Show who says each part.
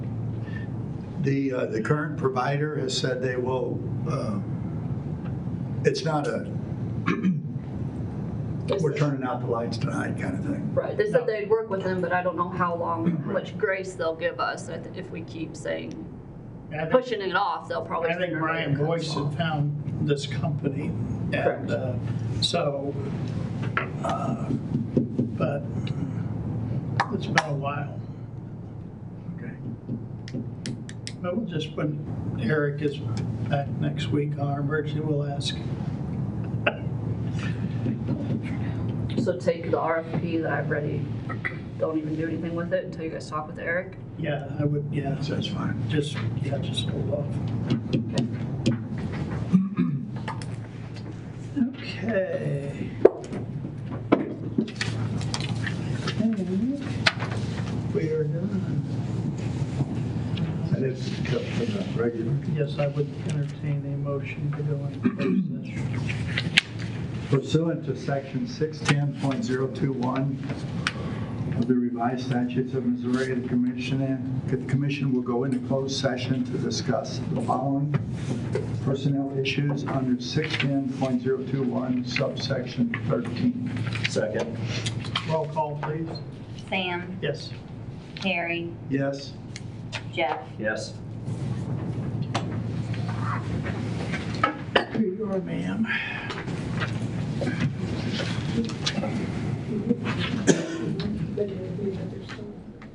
Speaker 1: The, uh, the current provider has said they will, uh, it's not a, we're turning out the lights tonight kind of thing.
Speaker 2: Right, they said they'd work with him, but I don't know how long, how much grace they'll give us I thi- if we keep saying,
Speaker 3: And I think-
Speaker 2: pushing it off, they'll probably.
Speaker 3: I think
Speaker 2: sooner or
Speaker 3: Brian
Speaker 2: later.
Speaker 3: Boyce had found this company.
Speaker 2: Correct.
Speaker 3: And uh, so, uh, but it's been a while.
Speaker 1: Okay.
Speaker 3: But we'll just, when Eric is back next week on our emergency, we'll ask.
Speaker 2: So take the RFP that I've ready, don't even do anything with it until you guys talk with Eric.
Speaker 3: Yeah, I would, yeah,
Speaker 1: So That's fine.
Speaker 3: just, yeah, just hold off. Okay. And We are done.
Speaker 1: That is cut from the regular.
Speaker 3: Yes, I would entertain a motion to go into closed session.
Speaker 1: Pursuant to section 610.021 of the revised statutes of Missouri, the commission, the commission will go into closed session to discuss the following personnel issues under 610.021 subsection 13.
Speaker 4: Second.
Speaker 3: Roll call, please.
Speaker 5: Sam,
Speaker 3: Yes.
Speaker 5: Harry,
Speaker 1: Yes?
Speaker 5: Jeff.
Speaker 4: Yes.
Speaker 3: Here you are, ma'am.